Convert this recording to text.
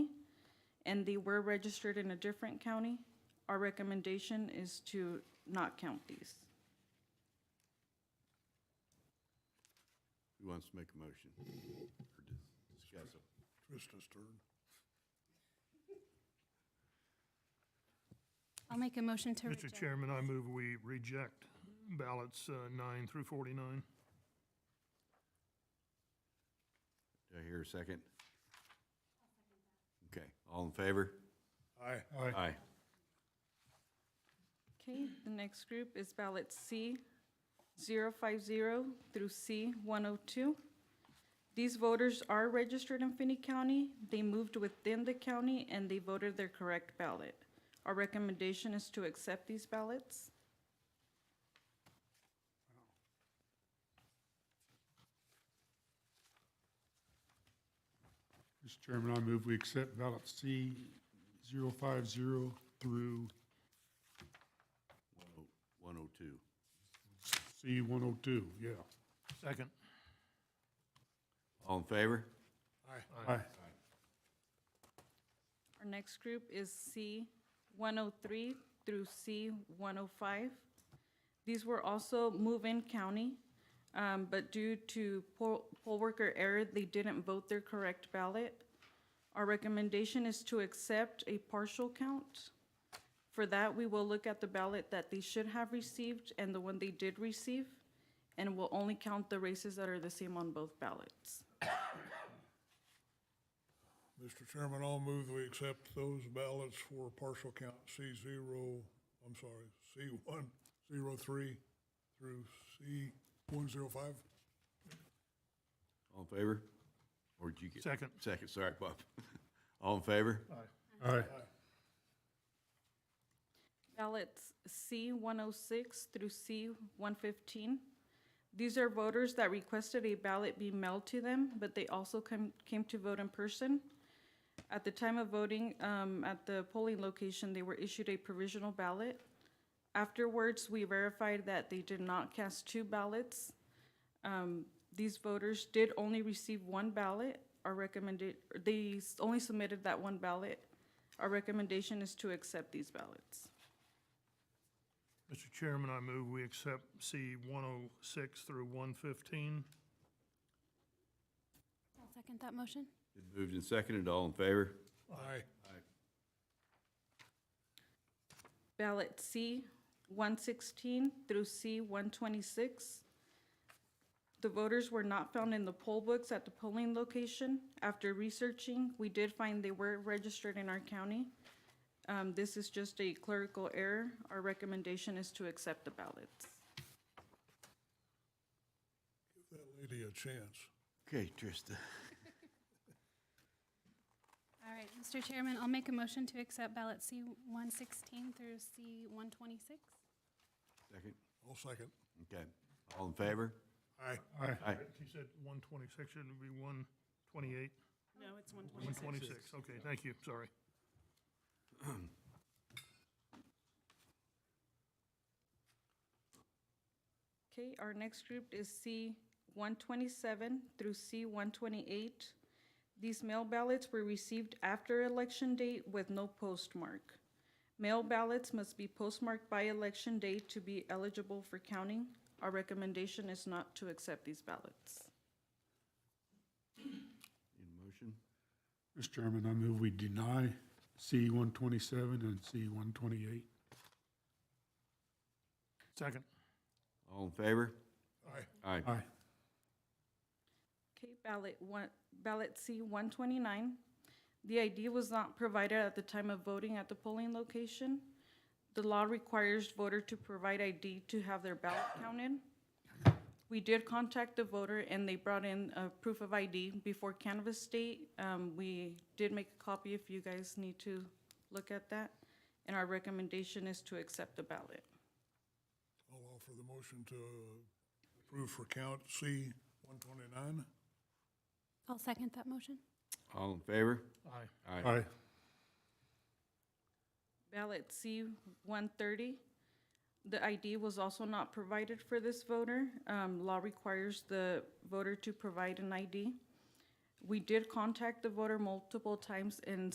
and they were registered in a different county, our recommendation is to not count these. Who wants to make a motion? Or dis- discuss it? Trista's turn. I'll make a motion to Mr. reject. Chairman, I move we reject ballots uh, nine through 49. Do I hear a second? Okay, all in favor? Aye. Aye. Okay, the next group is ballot C 050 through C 102. These voters are registered in Finney County. They moved within the county and they voted their correct ballot. Our recommendation is to accept these ballots. Mr. Chairman, I move we accept ballot C 050 through One oh two. C 102, yeah. Second. All in favor? Aye. Our next group is C 103 through C 105. These were also move-in county, um, but due to poll poll worker error, they didn't vote their correct ballot. Our recommendation is to accept a partial count. For that, we will look at the ballot that they should have received and the one they did receive, and we'll only count the races that are the same on both ballots. Mr. Chairman, I'll move that we accept those ballots for partial count C zero, I'm sorry, C one, zero three through C one zero five. All in favor? Or did you get? Second. Second, sorry, Bob. All in favor? Aye. ballots C one oh six through C one fifteen. These are voters that requested a ballot be mailed to them, but they also came, came to vote in person. At the time of voting, um, at the polling location, they were issued a provisional ballot. Afterwards, we verified that they did not cast two ballots. Um, these voters did only receive one ballot, our recommended, they s- only submitted that one ballot. Our recommendation is to accept these ballots. Mr. Chairman, I move we accept C 106 through 115. I'll second that motion. It moved and seconded, all in favor? Aye. ballot C one sixteen through C one twenty-six. The voters were not found in the poll books at the polling location. After researching, we did find they were registered in our county. Um, this is just a clerical error. Our recommendation is to accept the ballots. Give that lady a chance. Okay, Trista. All right, Mr. Chairman, I'll make a motion to accept ballot C one sixteen through C one twenty-six. Second, I'll second. okay. All in favor? Aye. Aye. Aye. She said 126, shouldn't it be 128? No, it's 126. 126, okay, thank you, sorry. Okay, our next group is C one twenty-seven through C one twenty-eight. These mail ballots were received after election date with no postmark. Mail ballots must be postmarked by election day to be eligible for counting. Our recommendation is not to accept these ballots. In motion? Mr. Chairman, I move we deny C 127 and C 128. Second. All in favor? Aye. Aye. Aye. Okay, ballot one, ballot C one twenty-nine. The ID was not provided at the time of voting at the polling location. The law requires voter to provide ID to have their ballot counted. We did contact the voter and they brought in a proof of ID before canvas date. Um, we did make a copy if you guys need to look at that. And our recommendation is to accept the ballot. I'll offer the motion to approve for count C one twenty-nine. I'll second that motion. All in favor? Aye. Aye. Aye. Ballot C-130, the ID was also not provided for this voter. Um, Law requires the voter to provide an ID. We did contact the voter multiple times and